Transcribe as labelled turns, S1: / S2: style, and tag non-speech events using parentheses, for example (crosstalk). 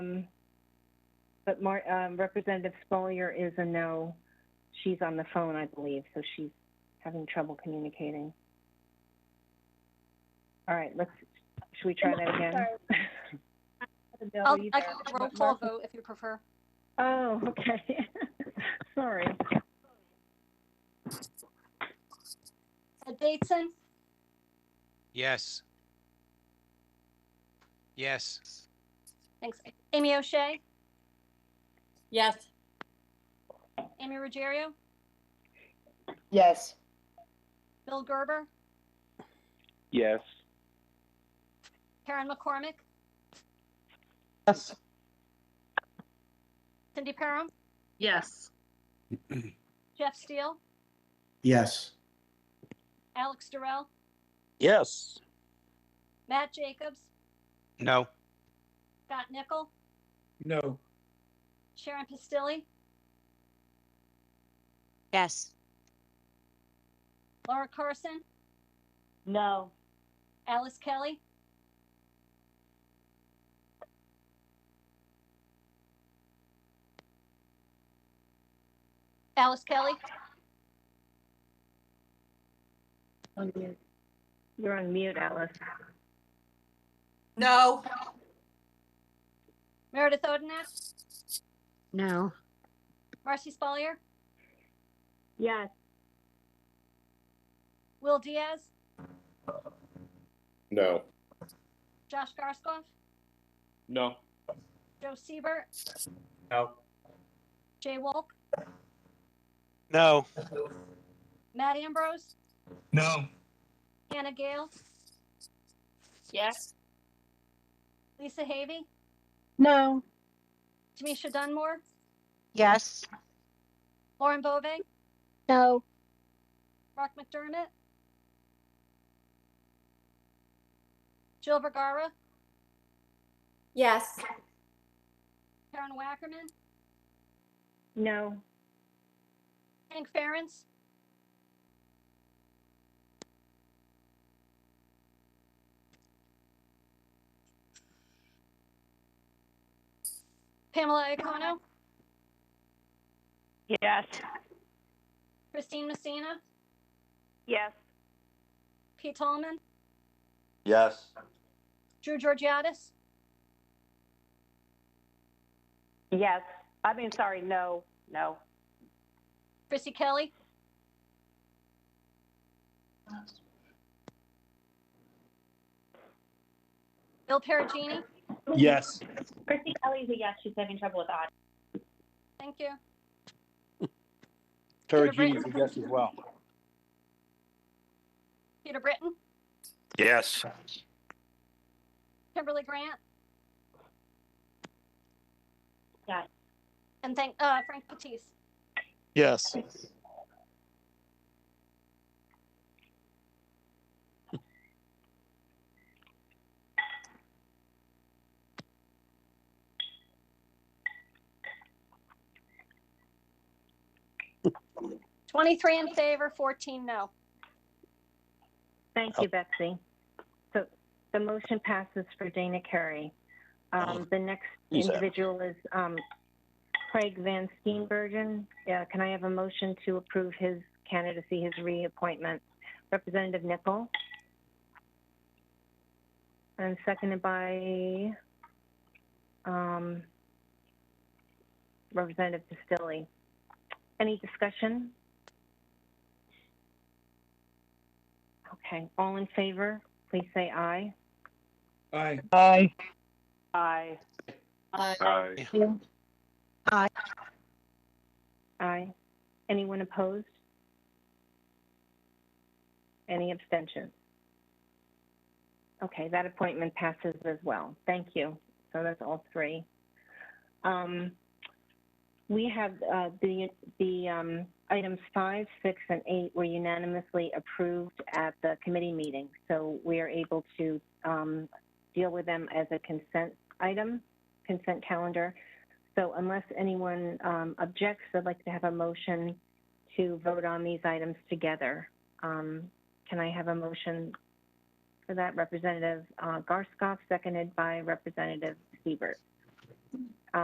S1: Um, But Mar, um, Representative Spolier is a no. She's on the phone, I believe, so she's having trouble communicating. All right, let's, should we try that again? (laughs)
S2: I'll, I can do a roll call vote if you prefer.
S1: Oh, okay. (laughs) Sorry.
S2: Uh, Bateson,
S3: Yes. Yes.
S2: thanks. Amy O'Shea,
S4: Yes.
S2: Amy Ruggiero,
S5: Yes.
S2: Bill Gerber,
S6: Yes.
S2: Karen McCormick,
S5: Yes.
S2: Cindy Perham,
S4: Yes.
S2: Jeff Steele,
S7: Yes.
S2: Alex Durrell,
S6: Yes.
S2: Matt Jacobs,
S3: No.
S2: Scott Nickel,
S7: No.
S2: Sharon Pistilli,
S8: Yes.
S2: Laura Carson,
S5: No.
S2: Alice Kelly, Alice Kelly,
S1: You're on mute, Alice.
S4: No.
S2: Meredith Odenak,
S8: No.
S2: Marcy Spalier,
S1: Yes.
S2: Will Diaz,
S9: No.
S2: Josh Garskoff,
S6: No.
S2: Joe Siebert,
S6: No.
S2: Jay Wolk,
S3: No.
S2: Matt Ambrose,
S7: No.
S2: Hannah Gale,
S4: Yes.
S2: Lisa Havey,
S5: No.
S2: Tamisha Dunmore,
S8: Yes.
S2: Lauren Bove,
S5: No.
S2: Mark McDermott, Jill Vergara,
S4: Yes.
S2: Karen Wackerman,
S1: No.
S2: Hank Ferentz, Pamela Iacono,
S8: Yes.
S2: Christine Messina,
S8: Yes.
S2: Pete Tallman,
S9: Yes.
S2: Drew Georgiadis,
S5: Yes. I mean, sorry, no, no.
S2: Chrissy Kelly, Bill Perigini.
S6: Yes.
S1: Chrissy Kelly's a yes, she's having trouble with audio.
S2: Thank you.
S6: Perigini's a yes as well.
S2: Peter Britton,
S9: Yes.
S2: Kimberly Grant.
S1: Yes.
S2: And thank, uh, Frank Batiste.
S6: Yes.
S2: Twenty-three in favor, fourteen no.
S1: Thank you, Betsy. So the motion passes for Dana Carey. Um, the next
S6: Who's that?
S1: individual is, um, Craig Van Steenbergen. Uh, can I have a motion to approve his candidacy, his reappointment? Representative Nichol? And seconded by, um, Representative Pistilli. Any discussion? Okay, all in favor, please say aye.
S7: Aye.
S5: Aye. Aye.
S9: Aye.
S1: Aye. Anyone opposed? Any abstentions? Okay, that appointment passes as well. Thank you. So that's all three. Um, we have uh, the the um, items five, six, and eight were unanimously approved at the committee meeting, so we are able to um, deal with them as a consent item, consent calendar. So unless anyone um, objects, I'd like to have a motion to vote on these items together. Um, Can I have a motion for that? Representative uh, Garskoff, seconded by Representative Siebert.